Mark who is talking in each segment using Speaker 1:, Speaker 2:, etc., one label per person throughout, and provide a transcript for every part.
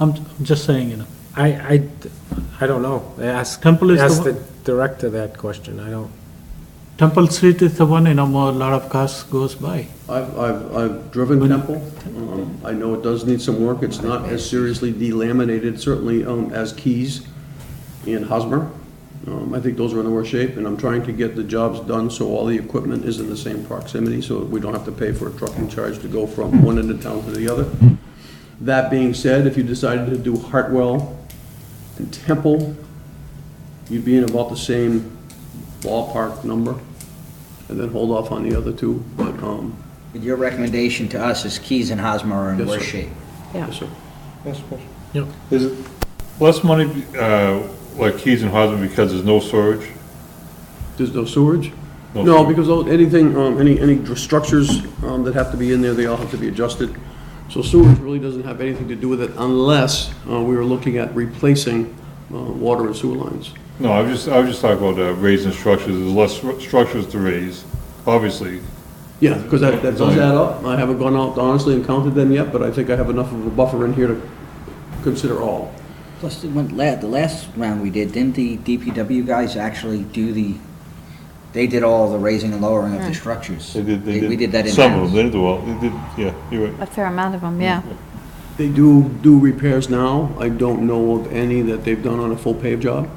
Speaker 1: I'm I'm just saying, you know,
Speaker 2: I, I, I don't know. Ask,
Speaker 1: Temple is the
Speaker 2: ask
Speaker 1: one-
Speaker 2: the director that question. I don't,
Speaker 1: Temple Street is the one, you know, more, lot of cars goes by.
Speaker 3: I've, I've, I've driven Temple. Um, I know it does need some work. It's not as seriously delaminated, certainly, um, as Keys and Hosmer. Um, I think those are in the worst shape, and I'm trying to get the jobs done so all the equipment is in the same proximity, so we don't have to pay for a trucking charge to go from one end of town to the other. That being said, if you decided to do Hartwell and Temple, you'd be in about the same ballpark number, and then hold off on the other two, but, um,
Speaker 4: But Your recommendation to us is Keys and Hosmer are in
Speaker 3: Yes,
Speaker 4: worse
Speaker 3: sir.
Speaker 4: shape.
Speaker 5: Yeah.
Speaker 3: Yes, sir.
Speaker 6: Last question.
Speaker 2: Yeah.
Speaker 6: Is it less money, uh, like Keys and Hosmer because there's no storage?
Speaker 3: There's no sewage?
Speaker 6: No
Speaker 3: No,
Speaker 6: sewage.
Speaker 3: because those- anything, um, any, any dr- structures um, that have to be in there, they all have to be adjusted. So sewage really doesn't have anything to do with it unless uh, we were looking at replacing uh, water and sewer lines.
Speaker 6: No, I was just, I was just talking about uh, raising structures, there's less stru- structures to raise, obviously.
Speaker 3: Yeah, because that, that does add up. I haven't gone out honestly and counted them yet, but I think I have enough of a buffer in here to consider all.
Speaker 4: Plus, the one, la- the last round we did, didn't the DPW guys actually do the, they did all the raising and lowering of the structures? We did that in
Speaker 6: Some of them,
Speaker 4: house.
Speaker 6: they did do all, they did, yeah, you're right.
Speaker 5: A fair amount of them, yeah.
Speaker 3: They do do repairs now. I don't know of any that they've done on a full pave job.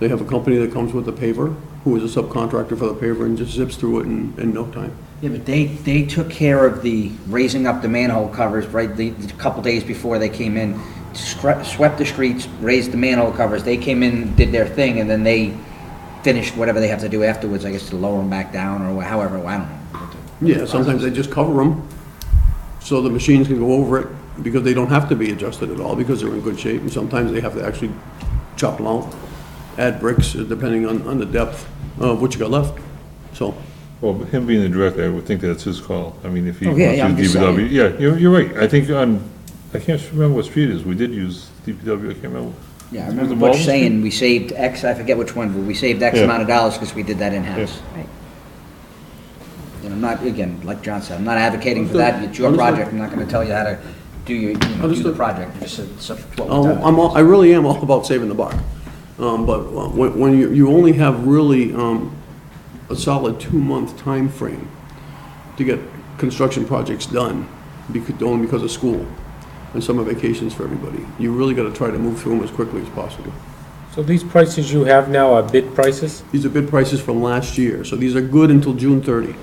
Speaker 3: They have a company that comes with a paver, who is a subcontractor for the paver and just zips through it in, in no time.
Speaker 4: Yeah, but they, they took care of the raising up the manhole covers, right, the, the couple days before they came in, scre- swept the streets, raised the manhole covers, they came in, did their thing, and then they finished whatever they have to do afterwards, I guess, to lower them back down, or however, I don't know.
Speaker 3: Yeah, sometimes they just cover them, so the machines can go over it, because they don't have to be adjusted at all, because they're in good shape, and sometimes they have to actually chop them out, add bricks, uh, depending on, on the depth of what you got left, so.
Speaker 6: Well, but him being the director, I would think that's his call, I mean, if he
Speaker 4: Oh,
Speaker 6: wants
Speaker 4: yeah,
Speaker 6: to
Speaker 4: yeah, I'm
Speaker 6: use
Speaker 4: just
Speaker 6: DPW. Yeah, you're, you're right, I think on, I can't remember what street it is, we did use DPW, I can't remember.
Speaker 4: Yeah, I remember
Speaker 6: Was it Baldwin
Speaker 4: Butch
Speaker 6: Street?
Speaker 4: saying we saved X, I forget which one, but we saved X
Speaker 6: Yeah.
Speaker 4: amount of dollars because we did that in-house.
Speaker 5: Right.
Speaker 4: And I'm not, again, like John said, I'm not advocating for that, it's your
Speaker 3: Understood.
Speaker 4: project, I'm not gonna tell you how to do your, you know, do the
Speaker 3: Understood.
Speaker 4: project, it's just, it's up to what we've
Speaker 3: Um,
Speaker 4: done.
Speaker 3: I'm, all- I really am all about saving the buck. Um, but uh, when, when you, you only have really, um, a solid two-month time frame to get construction projects done, because, only because of school and summer vacations for everybody. You really gotta try to move through them as quickly as possible.
Speaker 2: So these prices you have now are bid prices?
Speaker 3: These are bid prices from last year, so these are good until June 30.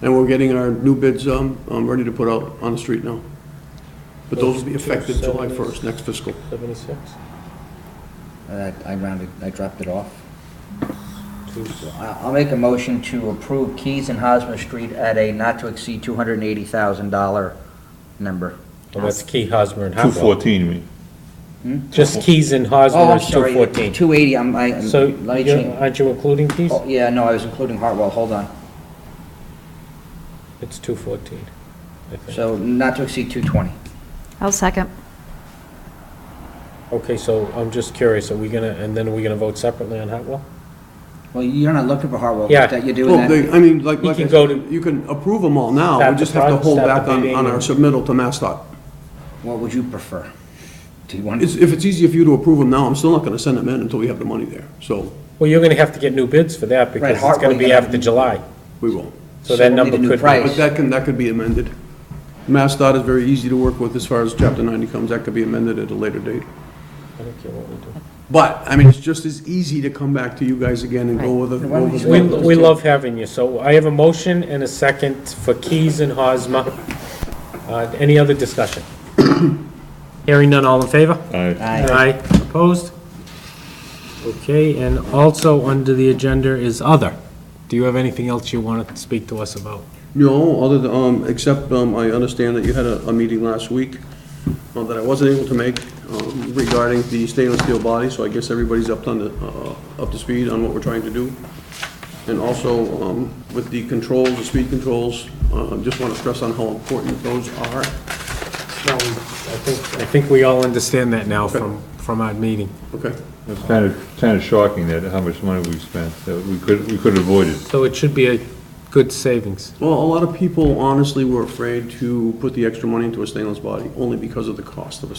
Speaker 3: And we're getting our new bids, um, um, ready to put out on the street now. But those will be effective July 1st, next fiscal.
Speaker 2: Seventy-six?
Speaker 4: Uh, I rounded, I dropped it off. So I- I'll make a motion to approve Keys and Hosmer Street at a not to exceed two hundred and eighty thousand dollar number.
Speaker 2: Well, that's Key, Hosmer, and
Speaker 6: Two
Speaker 2: Hopewell.
Speaker 6: fourteen, you mean?
Speaker 2: Just Keys and
Speaker 4: Oh,
Speaker 2: Hosmer
Speaker 4: I'm
Speaker 2: is
Speaker 4: sorry,
Speaker 2: two fourteen.
Speaker 4: two eighty, I'm, I,
Speaker 2: So,
Speaker 4: let me
Speaker 2: you're-
Speaker 4: change.
Speaker 2: aren't you including Keys?
Speaker 4: Oh, yeah, no, I was including Hartwell, hold on.
Speaker 2: It's two fourteen, I think.
Speaker 4: So not to exceed two twenty.
Speaker 5: I'll second.
Speaker 2: Okay, so I'm just curious, are we gonna, and then are we gonna vote separately on Hopewell?
Speaker 4: Well, you're not looking for Hartwell,
Speaker 2: Yeah.
Speaker 4: but that you're doing
Speaker 3: Well,
Speaker 4: that.
Speaker 3: they, I mean, like,
Speaker 2: You
Speaker 3: like,
Speaker 2: can
Speaker 3: I
Speaker 2: go
Speaker 3: said,
Speaker 2: to-
Speaker 3: you can approve them all now,
Speaker 2: Stop
Speaker 3: we
Speaker 2: the
Speaker 3: just have to
Speaker 2: pro-
Speaker 3: hold
Speaker 2: stop
Speaker 3: back
Speaker 2: the
Speaker 3: on,
Speaker 2: bidding
Speaker 3: on our
Speaker 2: and-
Speaker 3: submittal to MassDOT.
Speaker 4: What would you prefer? Do you want,
Speaker 3: It's, if it's easier for you to approve them now, I'm still not gonna send them in until we have the money there, so
Speaker 2: Well, you're gonna have to get new bids for that because it's
Speaker 4: Hartwell,
Speaker 2: gonna be
Speaker 4: you're gonna-
Speaker 2: after July.
Speaker 3: we will.
Speaker 2: So
Speaker 4: So
Speaker 2: that
Speaker 4: we'll need
Speaker 2: number
Speaker 4: a new
Speaker 2: could be.
Speaker 4: price.
Speaker 3: But that can, that could be amended. MassDOT is very easy to work with as far as chapter ninety comes, that could be amended at a later date.
Speaker 2: I don't care what we do.
Speaker 3: But, I mean, it's just as easy to come back to you guys again and go with a,
Speaker 4: Why
Speaker 3: go
Speaker 4: don't
Speaker 3: with
Speaker 2: We,
Speaker 3: a-
Speaker 2: we love having you, so I have a motion and a second for Keys and Hosmer. Uh, Any other discussion? Hearing none, all in favor?
Speaker 6: Aye.
Speaker 4: Aye.
Speaker 2: Opposed? Okay, and also under the agenda is other. Do you have anything else you want to speak to us about?
Speaker 3: No, other than, um, except, um, I understand that you had a, a meeting last week, uh, that I wasn't able to make, um, regarding the stainless steel body, so I guess everybody's up on the, uh, up to speed on what we're trying to do. And also, um, with the controls, the speed controls, uh, just wanna stress on how important those are.
Speaker 2: I think we all understand that now from, from our meeting.
Speaker 3: Okay,
Speaker 6: It's kind of, kind of shocking that, how much money we've spent, that we could, we could avoid it.
Speaker 2: So it should be a good savings.
Speaker 3: well, a lot of people honestly were afraid to put the extra money into a stainless body, only because of the cost of a